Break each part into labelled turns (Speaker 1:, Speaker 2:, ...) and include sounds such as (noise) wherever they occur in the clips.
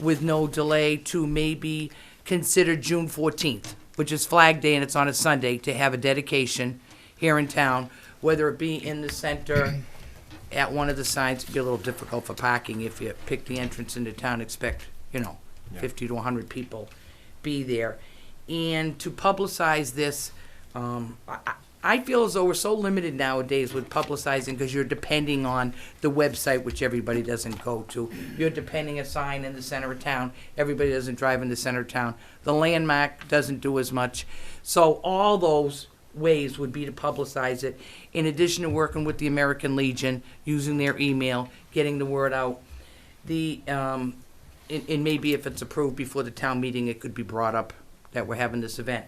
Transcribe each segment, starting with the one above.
Speaker 1: with no delay to maybe consider June fourteenth, which is Flag Day and it's on a Sunday, to have a dedication here in town, whether it be in the center, at one of the signs, it'd be a little difficult for parking if you pick the entrance into town, expect, you know, fifty to hundred people be there. And to publicize this, um, I, I- I feel as though we're so limited nowadays with publicizing because you're depending on the website, which everybody doesn't go to. You're depending a sign in the center of town. Everybody doesn't drive in the center of town. The landmark doesn't do as much. So all those ways would be to publicize it, in addition to working with the American Legion, using their email, getting the word out. The, um, and, and maybe if it's approved before the town meeting, it could be brought up that we're having this event.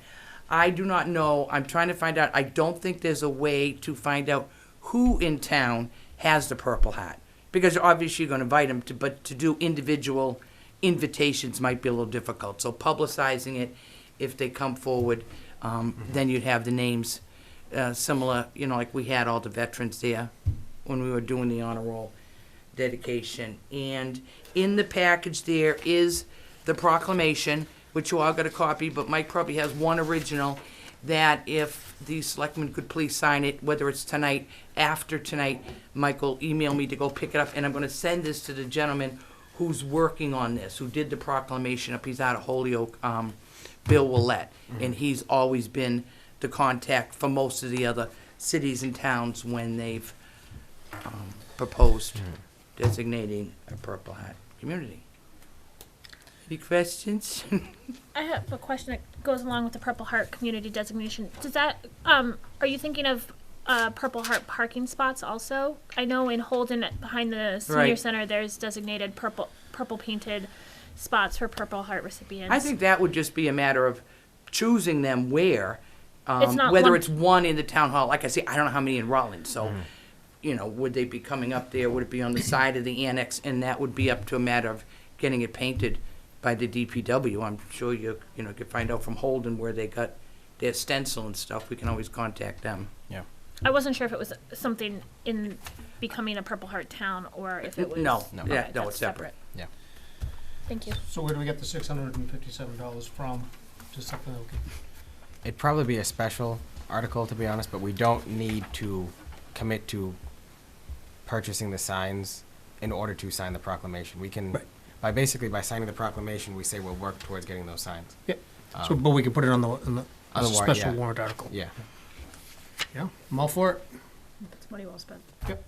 Speaker 1: I do not know, I'm trying to find out, I don't think there's a way to find out who in town has the Purple Hat. Because obviously you're gonna invite them to, but to do individual invitations might be a little difficult. So publicizing it, if they come forward, um, then you'd have the names, uh, similar, you know, like we had all the veterans there when we were doing the honor roll dedication. And in the package there is the proclamation, which you all got a copy, but Mike probably has one original, that if the selectmen could please sign it, whether it's tonight, after tonight, Michael email me to go pick it up, and I'm gonna send this to the gentleman who's working on this, who did the proclamation up, he's out of Holyoke, um, Bill Willett, and he's always been the contact for most of the other cities and towns when they've um, proposed designating a Purple Hat community. Any questions? (laughs)
Speaker 2: I have a question that goes along with the Purple Heart community designation. Does that, um, are you thinking of uh, Purple Heart parking spots also? I know in Holden, at- behind the senior
Speaker 1: Right.
Speaker 2: center, there's designated purple, purple painted spots for Purple Heart recipients.
Speaker 1: I think that would just be a matter of choosing them where, um,
Speaker 2: not
Speaker 1: whether
Speaker 2: one-
Speaker 1: it's one in the town hall, like I say, I don't know how many in Rutland, so, you know, would they be coming up there, would it be on the side of the annex, and that would be up to a matter of getting it painted by the DPW, I'm sure you, you know, could find out from Holden where they got their stencil and stuff, we can always contact them.
Speaker 3: Yeah.
Speaker 2: I wasn't sure if it was something in becoming a Purple Heart town or if it was.
Speaker 1: No,
Speaker 3: No.
Speaker 1: yeah,
Speaker 2: Okay,
Speaker 1: no,
Speaker 2: that's
Speaker 1: it's separate.
Speaker 3: Yeah.
Speaker 2: Thank you.
Speaker 4: So where do we get the six hundred and fifty-seven dollars from? Just something okay.
Speaker 3: It'd probably be a special article, to be honest, but we don't need to commit to purchasing the signs in order to sign the proclamation. We can,
Speaker 4: Right.
Speaker 3: by basically, by signing the proclamation, we say we'll work towards getting those signs.
Speaker 4: Yeah. So, but we could put it on the, on the,
Speaker 3: Um, On
Speaker 4: as a
Speaker 3: the warrant,
Speaker 4: special
Speaker 3: yeah.
Speaker 4: warrant article.
Speaker 3: Yeah,
Speaker 4: Yeah, I'm all for it.
Speaker 2: That's money well spent.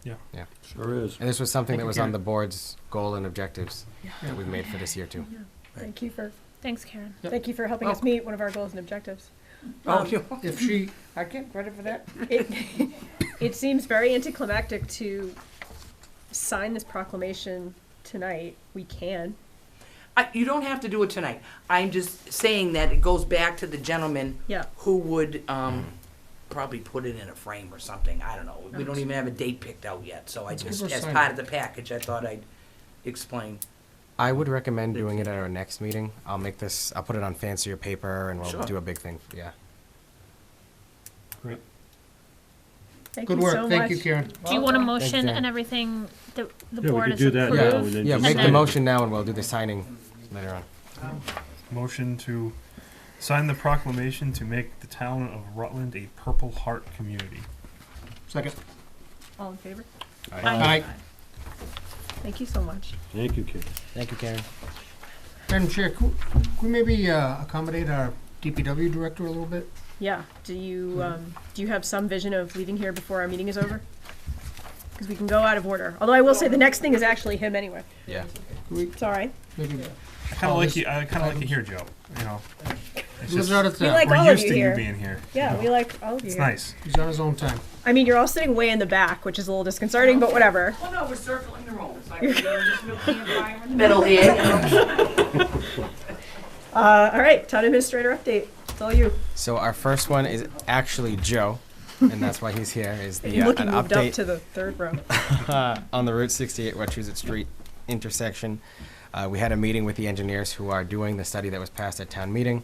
Speaker 3: yeah.
Speaker 5: Sure is.
Speaker 3: And this was something that was on
Speaker 4: Karen.
Speaker 3: the board's goal and objectives
Speaker 4: Yeah.
Speaker 3: that we made for this year too.
Speaker 6: Thank you for,
Speaker 2: Thanks, Karen.
Speaker 6: thank you for helping us
Speaker 1: Welcome.
Speaker 6: meet one of our goals and objectives.
Speaker 1: Oh,
Speaker 6: Um, (laughs)
Speaker 1: you-
Speaker 4: If she,
Speaker 1: I get credit for that.
Speaker 6: It, (laughs) it seems very anticlimactic to sign this proclamation tonight. We can.
Speaker 1: I, you don't have to do it tonight. I'm just saying that it goes back to the gentleman
Speaker 6: Yeah.
Speaker 1: who would um, probably put it in a frame or something. I don't know. We don't even have a date picked out yet, so I
Speaker 4: Let's
Speaker 1: just,
Speaker 4: give her
Speaker 1: as
Speaker 4: sign.
Speaker 1: part of the package, I thought I'd explain.
Speaker 3: I would recommend doing it at our next meeting. I'll make this, I'll put it on fancier paper and we'll
Speaker 1: Sure.
Speaker 3: do a big thing, yeah.
Speaker 6: Thank
Speaker 4: good
Speaker 6: you so
Speaker 4: work,
Speaker 6: much.
Speaker 4: thank you, Karen.
Speaker 2: Do you want a motion
Speaker 3: Jan.
Speaker 2: and everything that the
Speaker 5: Yeah, we
Speaker 2: board
Speaker 5: could
Speaker 2: is
Speaker 5: do that now.
Speaker 2: approved?
Speaker 5: and then
Speaker 3: Yeah,
Speaker 5: just
Speaker 3: make the
Speaker 5: sign it.
Speaker 3: motion now and we'll do the signing later on.
Speaker 7: Motion to sign the proclamation to make the town of Rutland a Purple Heart community.
Speaker 4: Second.
Speaker 6: All in favor?
Speaker 4: All
Speaker 2: Aye.
Speaker 4: right,
Speaker 6: Thank you so much.
Speaker 5: Thank you, Karen.
Speaker 3: Thank you, Karen.
Speaker 4: Madam Chair, could, could we maybe, uh, accommodate our DPW director a little bit?
Speaker 6: Yeah. Do
Speaker 4: Mm-hmm.
Speaker 6: you, um, do you have some vision of leaving here before our meeting is over? Because we can go out of order. Although I will say the next thing is actually him anyway.
Speaker 3: Yeah.
Speaker 6: It's all right.
Speaker 4: Maybe,
Speaker 7: I kind
Speaker 4: All
Speaker 7: of like
Speaker 4: this-
Speaker 7: you. I kind of like you here, Joe. You know, it's
Speaker 4: lives
Speaker 7: just,
Speaker 4: out of
Speaker 6: We
Speaker 4: town,
Speaker 6: like all
Speaker 7: we're
Speaker 6: of
Speaker 7: used
Speaker 6: you
Speaker 7: to you
Speaker 6: here.
Speaker 7: being here.
Speaker 6: Yeah, we like all of you
Speaker 7: It's
Speaker 6: here.
Speaker 7: nice.
Speaker 4: he's on his own time.
Speaker 6: I mean, you're all sitting way in the back, which is a little disconcerting, but whatever.
Speaker 1: Well, Oh, no, we're circling the room. It's like we're just middle here.
Speaker 6: Uh, all right, town administrator update. It's all you.
Speaker 3: So our first one is actually Joe, and that's why he's here. Is the
Speaker 6: (laughs) You're
Speaker 3: uh,
Speaker 6: looking
Speaker 3: an
Speaker 6: moved up
Speaker 3: update
Speaker 6: to the third row.
Speaker 3: uh, (laughs) on the Route 68 Wachusett Street intersection? Uh, we had a meeting with the engineers who are doing the study that was passed at town meeting.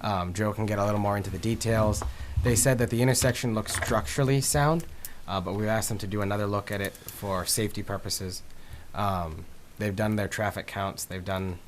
Speaker 3: Um, Joe can get a little more into the details. They said that the intersection looks structurally sound, uh, but we asked them to do another look at it for safety purposes. Um, they've done their traffic counts. They've done